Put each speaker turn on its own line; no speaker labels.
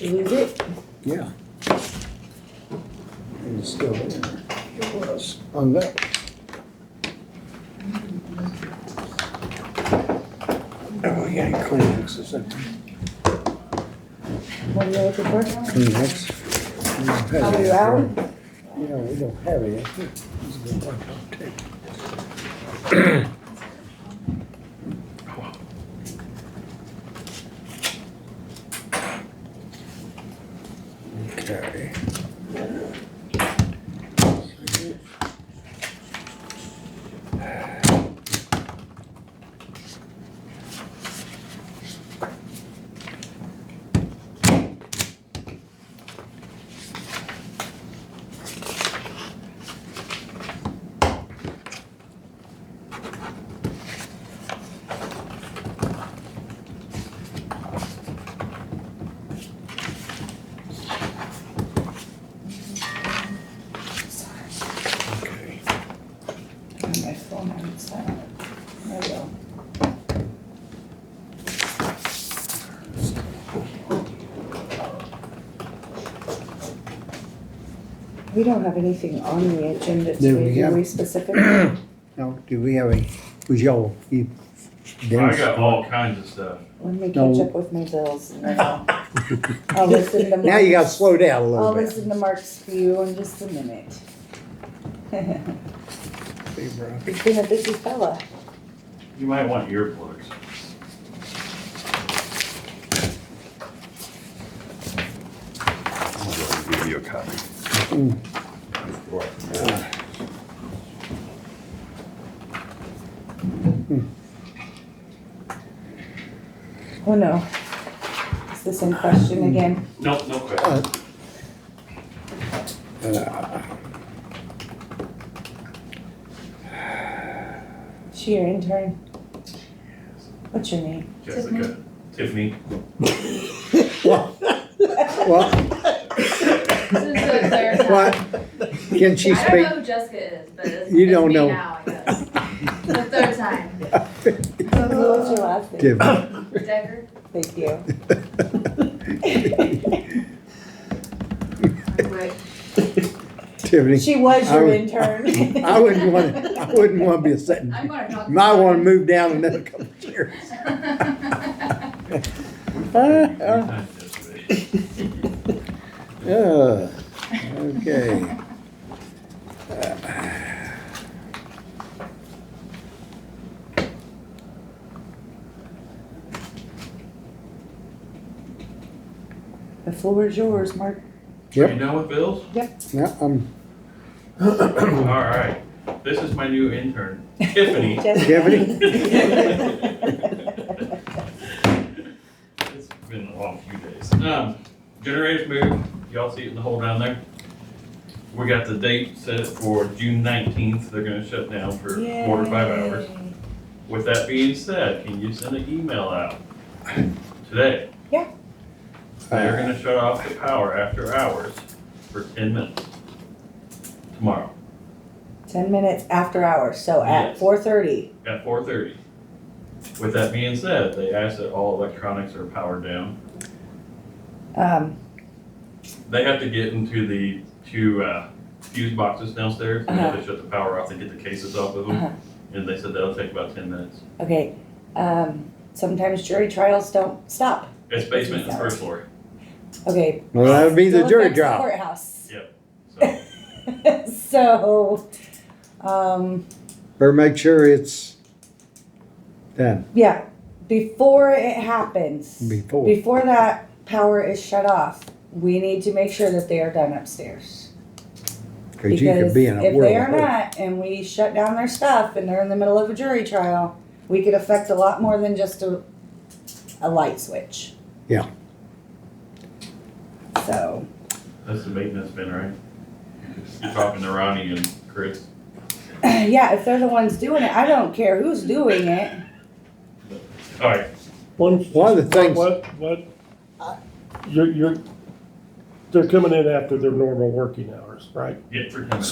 lose it?
Yeah. And it's still there. It was on that. Oh, yeah, Kleenex is that
What are you looking for?
Kleenex. We don't have
Are
any.
you out?
Yeah, we don't have it. It's been wiped off tape. Okay. Okay.
My phone on silent. There we go. We don't have anything on the agenda
There we
today, are
go.
we specific?
Now, do we have a, was y'all, you?
I got all kinds of stuff.
Let me
No.
catch up with my bills and then I'll, I'll listen to Mark's.
Now you gotta slow down a little
I'll
bit.
listen to Mark's view in just a minute. He's been a busy fella.
You might want earplugs.
I'll give you a copy.
Mm,
Oh no. It's the same question
Mm.
again.
No, no question.
Uh, uh,
She your intern. What's your name?
Jessica, Tiffany,
Well,
This is the third time.
what, can she
I don't
speak?
know who Jessica is, but it's,
You
it's
don't
me
know.
now, I guess. the third time.
What's your last name?
Give-
Decker?
Thank you.
Wait.
Tiffany,
She was your
I-
intern.
I wouldn't want, I wouldn't want to be a sitting,
I'm gonna talk.
might want to move down another couple of years.
three
Uh,
times yesterday.
uh, Okay.
The floor is yours, Mark.
Are
Yep.
you done with bills?
Now, I'm,
All right. This is my new intern, Tiffany.
Tiffany?
It's been a long few days. Um, generators moved, y'all see it in the hole down there? We got the date set for June nineteenth, they're gonna shut down for four to five hours. With that being said, can you send an email out today?
Yeah.
uh,
They're gonna shut off the power after hours for ten minutes tomorrow
Ten minutes after hours, so at
Yes.
four thirty.
at four thirty. With that being said, they ask that all electronics are powered down.
Um,
They have to get into the two uh, fuse boxes downstairs, and if they shut the power off, they get the cases off of
Uh-huh.
them. And they said that'll take about ten minutes.
okay, um, sometimes jury trials don't stop.
It's basement and first floor,
Okay.
well, that'd be the
still
jury
affects the
trial.
Courthouse.
so
So, um,
Better make sure it's done
yeah, before it happens.
before.
Before that power is shut off, we need to make sure that they are done upstairs.
Cause you could be in a
Because if they are
world. of hurt.
not, and we shut down their stuff, and they're in the middle of a jury trial, we could affect a lot more than just a, a light switch.
Yeah.
So,
that's the maintenance bin, right? You're Talking to Ronnie and Chris.
yeah, if they're the ones doing it, I don't care who's doing it.
All right,
One,
One of the things-
What, what, you're, you're, they're coming in after their normal working hours, right?
get for ten minutes.